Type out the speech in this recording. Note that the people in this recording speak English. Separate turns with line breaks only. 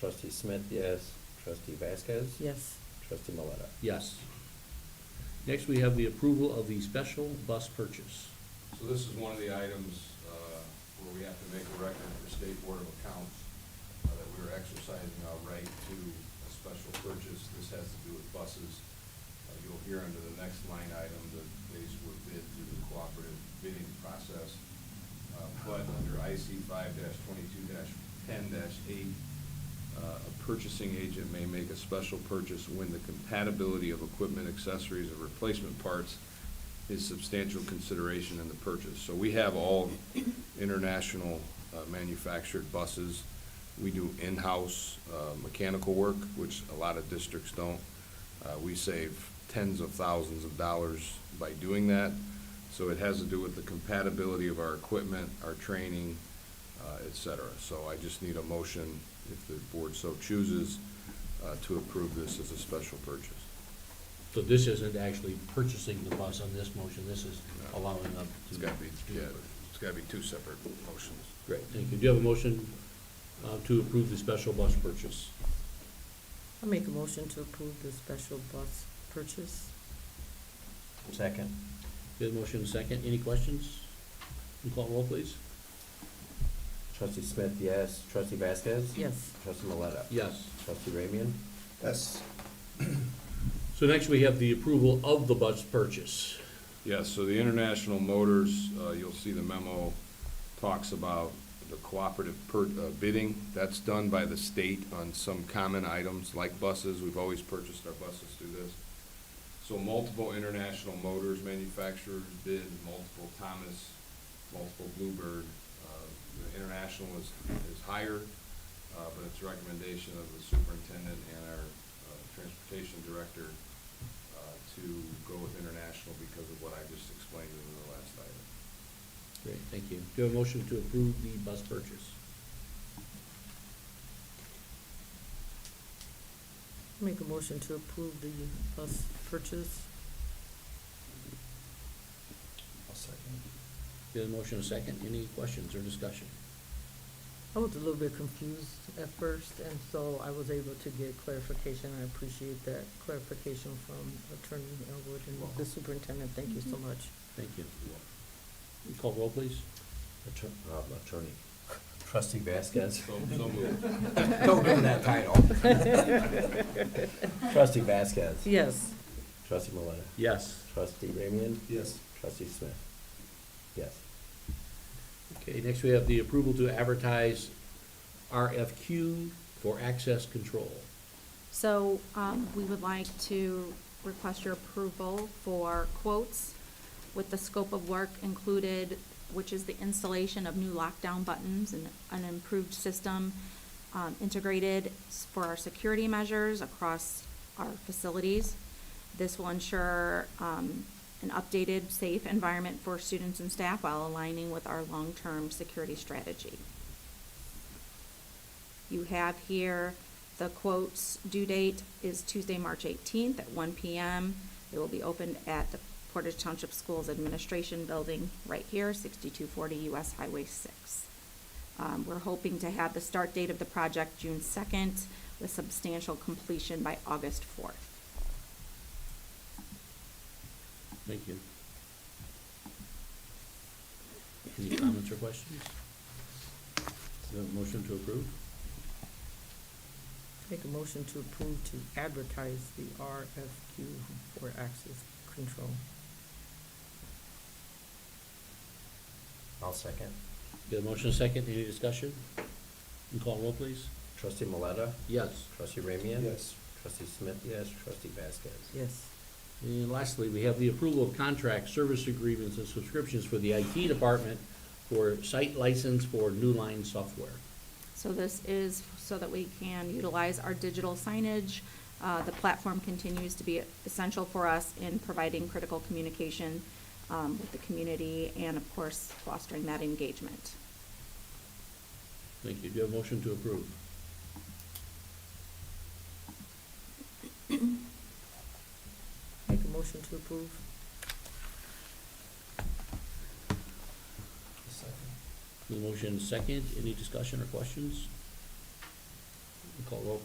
Trustee Smith, yes. Trustee Vasquez?
Yes.
Trustee Maleta?
Yes. Next, we have the approval of the special bus purchase.
So this is one of the items uh, where we have to make a record for State Board of Accounts uh, that we are exercising our right to a special purchase. This has to do with buses. Uh, You'll hear under the next line item that these were bid through the cooperative bidding process. Uh, But under IC five twenty-two ten eight, uh, a purchasing agent may make a special purchase when the compatibility of equipment, accessories, or replacement parts is substantial consideration in the purchase. So we have all international uh, manufactured buses. We do in-house uh, mechanical work, which a lot of districts don't. Uh, We save tens of thousands of dollars by doing that. So it has to do with the compatibility of our equipment, our training, uh, et cetera. So I just need a motion, if the board so chooses, uh, to approve this as a special purchase.
So this isn't actually purchasing the bus on this motion, this is allowing them to.
It's got to be,
do
yeah,
it.
it's got to be two separate motions.
Great, thank you. Do you have a motion uh, to approve the special bus purchase?
I'll make a motion to approve the special bus purchase.
Second.
We have a motion and a second. Any questions? Can you call roll, please?
Trustee Smith, yes. Trustee Vasquez?
Yes.
Trustee Maleta?
Yes.
Trustee Ramian?
Yes.
So next, we have the approval of the bus purchase.
Yes, so the International Motors, uh, you'll see the memo talks about the cooperative per, uh, bidding. That's done by the state on some common items like buses. We've always purchased our buses through this. So multiple International Motors manufacturers bid, multiple Thomas, multiple Bluebird. Uh, The International is, is higher, uh, but it's recommendation of the superintendent and our uh, transportation director uh, to go with international because of what I just explained in the last item.
Great, thank you. Do you have a motion to approve the bus purchase?
Make a motion to approve the bus purchase.
I'll second.
Do you have a motion and a second? Any questions or discussion?
I was a little bit confused at first, and so I was able to get clarification. I appreciate that clarification from Attorney Elwood and the superintendent. Thank you so much.
Thank you. Can you Call roll, please.
Attor- uh, Attorney. Trustee Vasquez?
So, so moved.
Don't give him that title. Trustee Vasquez?
Yes.
Trustee Maleta?
Yes.
Trustee Ramian?
Yes.
Trustee Smith? Yes.
Okay, next we have the approval to advertise RFQ for access control.
So um, we would like to request your approval for quotes with the scope of work included, which is the installation of new lockdown buttons and an improved system um, integrated s- for our security measures across our facilities. This will ensure um, an updated, safe environment for students and staff while aligning with our long-term security strategy. You have here, the quote's due date is Tuesday, March eighteenth at one PM. It will be opened at the Portage Township Schools Administration Building right here, sixty-two forty US Highway six. Um, we're hoping to have the start date of the project June second with substantial completion by August fourth.
Thank you. Any comments or questions? Is there a motion to approve?
Make a motion to approve to advertise the RFQ for access control.
I'll second.
Do you have a motion and a second? Any discussion? Can you call roll, please.
Trustee Maleta?
Yes.
Trustee Ramian?
Yes.
Trustee Smith, yes. Trustee Vasquez?
Yes.
And lastly, we have the approval of contract service agreements and subscriptions for the IT department for site license for New Line software.
So this is so that we can utilize our digital signage. Uh, The platform continues to be essential for us in providing critical communication um, with the community and, of course, fostering that engagement.
Thank you. Do you have a motion to approve?
Make a motion to approve.
I'll second.
The motion second, any discussion or questions? call roll,